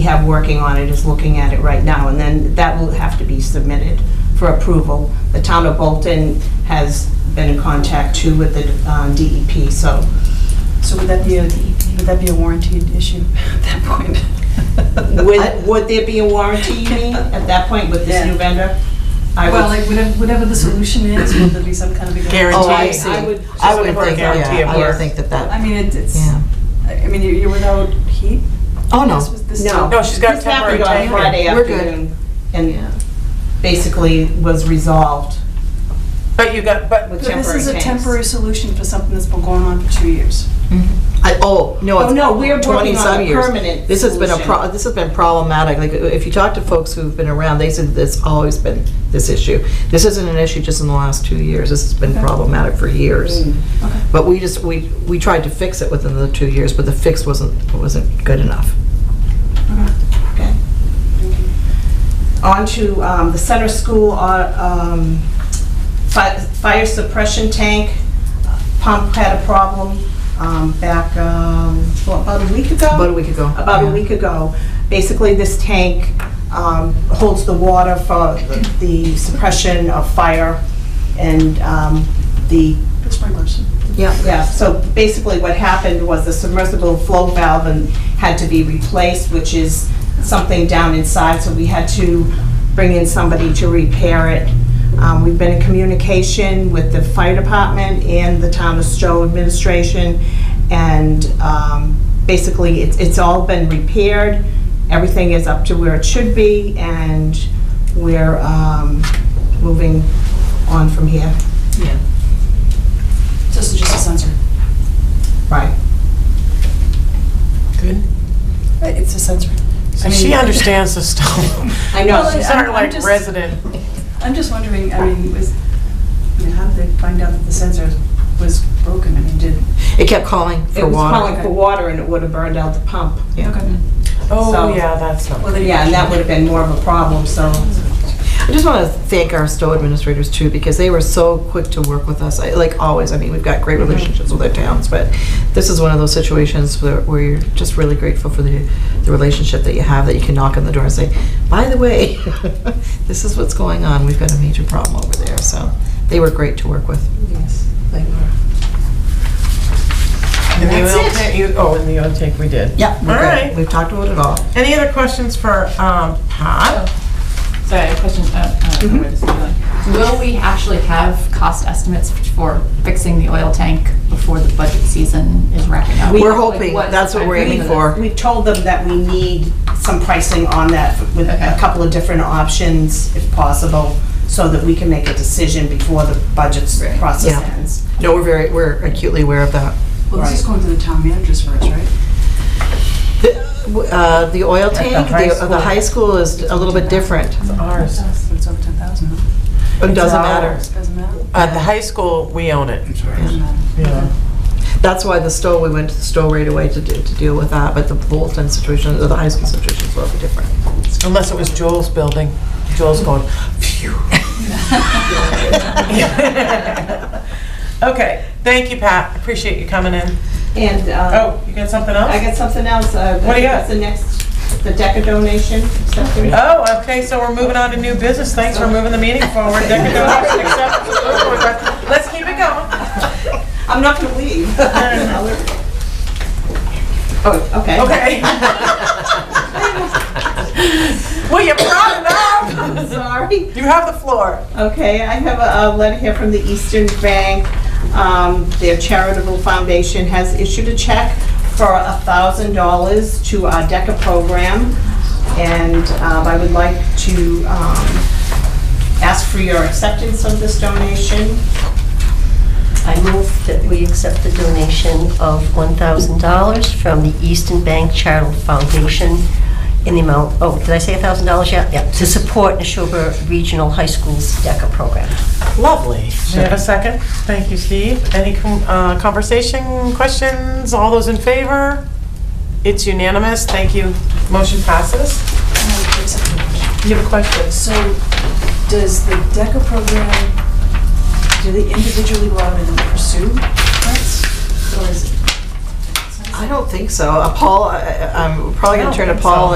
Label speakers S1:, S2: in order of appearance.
S1: have working on it is looking at it right now, and then that will have to be submitted for approval. The town of Bolton has been in contact too with the uh, DEP, so
S2: So would that be a, would that be a warranted issue at that point?
S1: would, would there be a warranty, you mean, at that point with this new vendor? I would-
S2: Well, like whatever, whatever the solution is, would there be some kind of a
S3: Guarantee.
S4: Oh, I
S1: I
S4: see.
S1: would-
S4: I would
S3: Just for a
S4: think,
S3: guarantee
S4: yeah,
S3: of
S4: I would
S3: work.
S4: think that
S2: I
S4: that,
S2: mean, it- it's,
S4: yeah.
S2: I mean, you're you're without heat?
S4: Oh,
S2: This
S4: no.
S2: was- this-
S1: No.
S3: No, she's got a
S1: This happened
S3: temporary
S1: on
S3: tank.
S1: Friday
S4: We're good.
S1: afternoon, and basically was resolved
S3: But you got, but,
S1: with
S2: But this
S1: temporary
S2: is a
S1: tanks.
S2: temporary solution for something that's been going on for two years.
S4: I, oh, no.
S1: Oh,
S4: it's
S1: no, we're working
S4: 20
S1: on
S4: some
S1: a
S4: years.
S1: permanent
S4: This has been a, pro-
S1: solution.
S4: this has been problematic, like, if you talk to folks who've been around, they said it's always been this issue. This isn't an issue just in the last two years, this has been
S2: Okay.
S4: problematic for years.
S1: Mm.
S2: Okay.
S4: But we just, we, we tried to fix it within the two years, but the fix wasn't, wasn't good enough.
S1: Okay. On to um, the center school uh, um, fi- fire suppression tank pump had a problem um, back, um, what, about a week ago?
S4: About a week ago.
S1: About a
S4: Yeah.
S1: week ago. Basically, this tank um, holds the water for the suppression of fire and um, the
S2: That's my question.
S4: Yeah.
S1: yeah, so basically what happened was the submersible flow valve and had to be replaced, which is something down inside, so we had to bring in somebody to repair it. Um, We've been in communication with the fire department and the town of Stowe administration, and um, basically, it's it's all been repaired, everything is up to where it should be, and we're um, moving on from here.
S2: This is just a sensor.
S1: Right.
S3: good.
S2: Uh, It's a sensor. I mean-
S3: She understands the stuff.
S1: I know.
S3: She's
S2: I'm-
S3: our
S2: I'm
S3: like
S2: just-
S3: resident.
S2: I'm just wondering, I mean, was, I mean, how did they find out that the sensor was broken? I mean, did,
S4: It kept calling
S1: It
S4: for
S1: was
S4: water.
S1: calling for water and it would have burned out the pump.
S4: Yeah.
S2: okay.
S1: So-
S3: Oh, yeah, that's not.
S2: Well, they-
S1: Yeah, and that would have been more of a problem, so.
S4: I just want to thank our Stowe administrators too, because they were so quick to work with us, I- like always. I mean, we've got great relationships with our towns, but this is one of those situations where where you're just really grateful for the, the relationship that you have, that you can knock on the door and say, by the way, this is what's going on, we've got a major problem over there, so they were great to work with.
S1: Yes, they were.
S3: And the
S4: That's
S3: oil
S4: it.
S3: tank- you- Oh, and the oil tank we did.
S4: Yeah, we're
S3: All
S4: good.
S3: right.
S4: We've talked about it all.
S3: Any other questions for um, Pat?
S5: Sorry, I have a question. uh, I
S4: Mm-hmm.
S5: don't know where this is going. Will we actually have cost estimates for fixing the oil tank before the budget season is wrapping up?
S4: We're
S5: Like,
S4: hoping, that's what we're aiming for.
S1: We told them that we need some pricing on that with a
S5: Okay.
S1: couple of different options if possible, so that we can make a decision before the budget
S5: Right.
S1: process
S4: Yeah.
S1: ends.
S4: No, we're very, we're acutely aware of that.
S2: Well, this is
S1: Right.
S2: going to the town managers first, right?
S4: The uh, the oil tank,
S3: high
S4: the the high school is a little bit different.
S3: It's ours.
S2: But it's over ten thousand, huh?
S4: It doesn't
S2: uh,
S4: matter.
S3: ours.
S2: Doesn't matter?
S3: At the high school, we own it.
S2: Doesn't matter.
S3: Yeah.
S4: That's why the Stowe, we went to the Stowe right away to, do- to deal with that, but the Bolton situation, or the high school situation is a little bit different.
S3: Unless it was Joel's building. Joel's going, phew. Okay, thank you, Pat. Appreciate you coming in.
S1: And uh,
S3: Oh, you got something else?
S1: I got something else. uh,
S3: What do you got?
S1: The next, the DECA donation, something.
S3: Oh, okay, so we're moving on to new business. Thanks for moving the meeting forward. There we go. Accept. Let's keep it going.
S1: I'm not going to leave. Oh, okay.
S3: Okay. Well, you brought it up.
S1: Sorry.
S3: You have the floor.
S1: Okay, I have a a letter here from the Eastern Bank. Um, Their charitable foundation has issued a check for $1,000 to our DECA program, and um, I would like to um, ask for your acceptance of this donation.
S6: I move that we accept the donation of $1,000 from the Eastern Bank Charitable Foundation in the amount, oh, did I say $1,000 yet? Yeah, to support Neshoba Regional High School's DECA program.
S3: Lovely. Do you have a second? Thank you, Steve. Any com- uh, conversation, questions? All those in favor? It's unanimous. Thank you. Motion passes. You have a question?
S2: So, does the DECA program, do they individually go out and pursue grants? Or is it?
S4: I don't think so. Uh, Paul, I- I- I'm probably
S3: I
S4: gonna
S3: don't
S4: turn to
S3: think
S4: Paul
S3: so.